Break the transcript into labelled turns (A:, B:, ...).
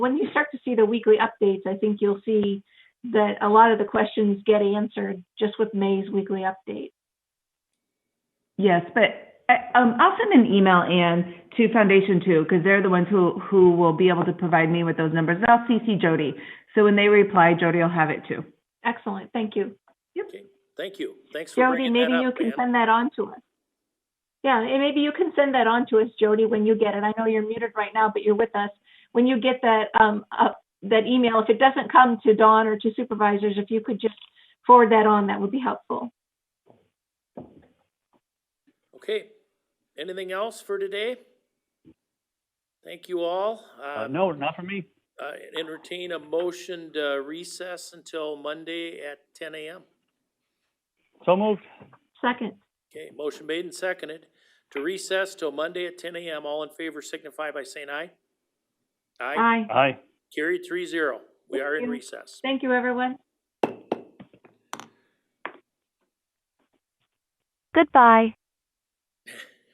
A: when you start to see the weekly updates, I think you'll see that a lot of the questions get answered just with May's weekly update.
B: Yes, but uh, um, I'll send an email, Anne, to Foundation Two, because they're the ones who, who will be able to provide me with those numbers. And I'll CC Jody. So when they reply, Jody will have it too.
A: Excellent, thank you.
C: Thank you. Thanks for
A: Jody,
C: bringing
A: maybe
C: that
A: you
C: up,
A: can
C: Ann.
A: send that on to us. Yeah, and maybe you can send that on to us, Jody, when you get it. I know you're muted right now, but you're with us. When you get that, um, up, that email, if it doesn't come to Dawn or to supervisors, if you could just forward that on, that would be helpful.
C: Okay. Anything else for today? Thank you all.
D: Uh,
C: Uh,
D: no, not for me.
C: uh, entertain a motion to recess until Monday at ten AM.
D: So moved.
A: Second,
C: Okay, motion made and seconded to recess till Monday at ten AM. All in favor signify by saying aye. Aye.
A: aye.
D: Aye.
C: Carried three zero. We are in
A: Thank you.
C: recess.
A: Thank you, everyone.
E: Goodbye.